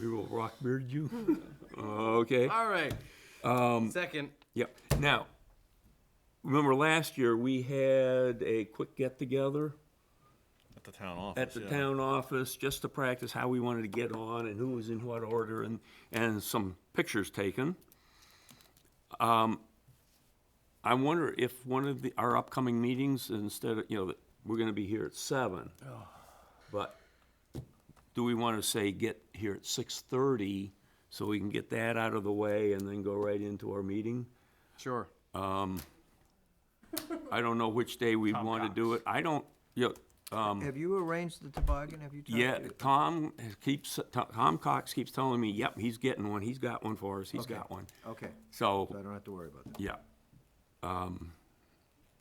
We will rock beard you. Okay, All right. Um, Second. yep. Now, remember last year, we had a quick get-together At the town office. at the yeah. town office, just to practice how we wanted to get on and who was in what order and, and some pictures taken. Um, I wonder if one of the, our upcoming meetings, instead of, you know, we're gonna be here at seven. But do we wanna say get here at six-thirty so we can get that out of the way and then go right into our meeting? Sure. I don't know which day we wanna do it. I don't, you know, Have you arranged the toboggan? Have you talked Yeah, to- Tom has- keeps, Tom Cox keeps telling me, yep, he's getting one, he's got one for us, he's got one. Okay, so I So, don't have to worry about that. yeah,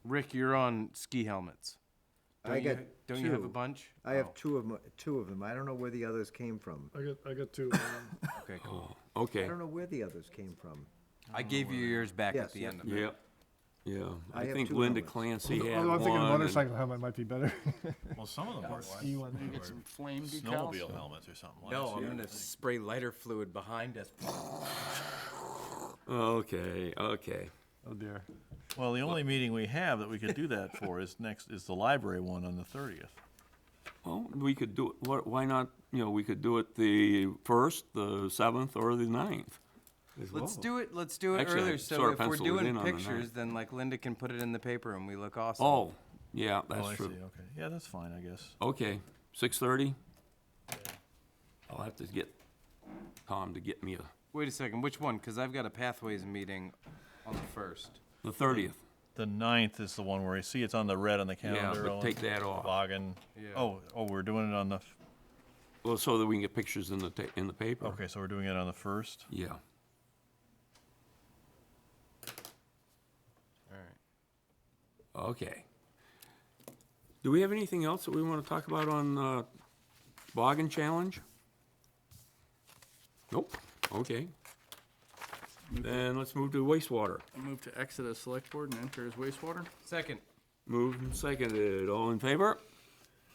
Rick, you're on ski helmets. I Don't you- got Don't you have a Oh. two. bunch? I have two of them, two of them. I don't know where the others came from. I got, I got two. um, Okay, cool. I okay, don't know where the others came from. I gave you yours back Yes, at the yes. end of it. yeah, yeah. I I have think two Linda helmets. Clancy had Although I'm thinking a one. and- motorcycle helmet might be better. Well, some of them were. uh, Ski one. They were flame Snowmobile helmets or something. No, last I'm year. gonna spray lighter fluid behind us. Okay, okay. Oh dear. Well, the only meeting we have that we could do that for is next, is the library one on the thirtieth. Well, we could do, it. wh- why not, you know, we could do it the first, the seventh, or the ninth. as Let's well. do it, let's do it Actually, I earlier. So sorta if we're penciled it in doing on the pictures, ninth. then like Linda can put it in the paper and we look awesome. Oh, yeah, Oh, I that's see, true. okay. Yeah, that's fine, I guess. Okay, six-thirty? I'll have to get Tom to get me a, Wait a second, which one? Cause I've got a pathways meeting on the first. the thirtieth. The ninth is the one where I see it's on the red on the Yeah, calendar. but Owen. take that off. Toboggan. Yeah. Oh, oh, we're doing it on the, f- Well, so that we can get pictures in the, ta- in the paper. okay, so we're doing it on the first. Yeah. Alright. Okay. Do we have anything else that we want to talk about on uh, Boggin Challenge? Nope, okay. Then let's move to wastewater. Move to exit as select board and enter as wastewater. Second. Moved and seconded, all in favor?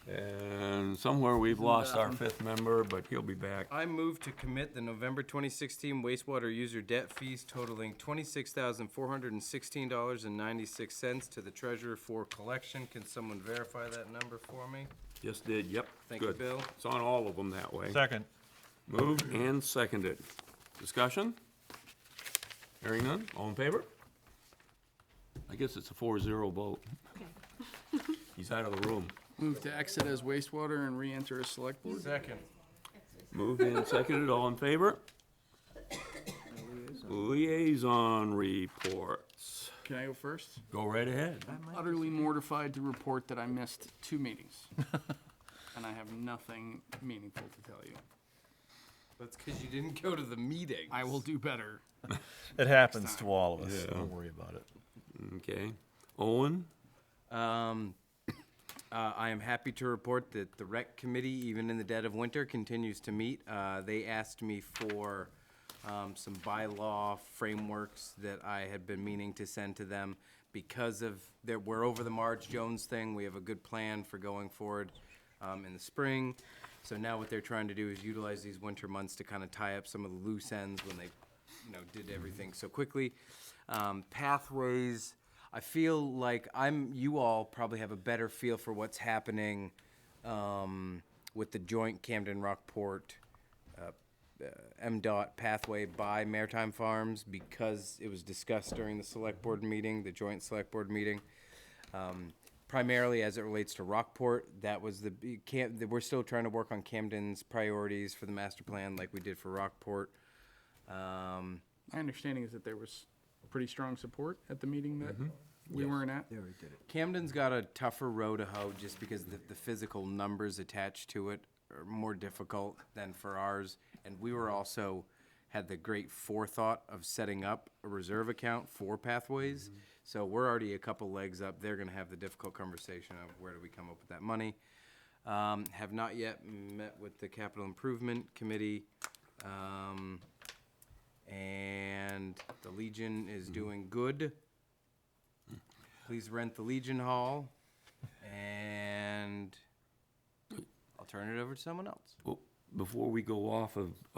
And somewhere we've lost our fifth member, but he'll be back. I move to commit the November 2016 wastewater user debt fees totaling $26,416.96 to the treasurer for collection. Can someone verify that number for me? Just did, yep. Thank you, good. Bill. It's on all of them that way. Second. Moved and seconded. Discussion? Hearing none, all in favor? I guess it's a four-zero vote. He's out of the room. Move to exit as wastewater and re-enter as select board. Second. Moved and seconded, all in favor? Liaison reports. Can I go first? Go right ahead. Utterly mortified to report that I missed two meetings. And I have nothing meaningful to tell you. That's because you didn't go to the meeting. I will do better. It happens to all of us. Don't worry about it. Okay. Owen? Um, uh, I am happy to report that the rec committee, even in the dead of winter, continues to meet. Uh, they asked me for, um, some bylaw frameworks that I had been meaning to send to them. Because of, that we're over the Marge Jones thing, we have a good plan for going forward, um, in the spring. So now what they're trying to do is utilize these winter months to kind of tie up some of the loose ends when they you know, did everything so quickly. Um, pathways. I feel like I'm. You all probably have a better feel for what's happening um, with the joint Camden Rockport uh, uh, MDOT pathway by Maritime Farms because it was discussed during the select board meeting, the joint select board meeting. Um, primarily as it relates to Rockport, that was the big Cam, we're still trying to work on Camden's priorities for the master plan, like we did for Rockport. Um, My understanding is that there was pretty strong support at the meeting that we weren't at. There, he did it. Camden's got a tougher row to hoe just because the, the physical numbers attached to it are more difficult than for ours. And we were also, had the great forethought of setting up a reserve account for pathways. So we're already a couple legs up. They're gonna have the difficult conversation of where do we come up with that money? Um, have not yet met with the capital improvement committee. Um, and the Legion is doing good. Please rent the Legion Hall, and I'll turn it over to someone else. Well, Before we go off of uh,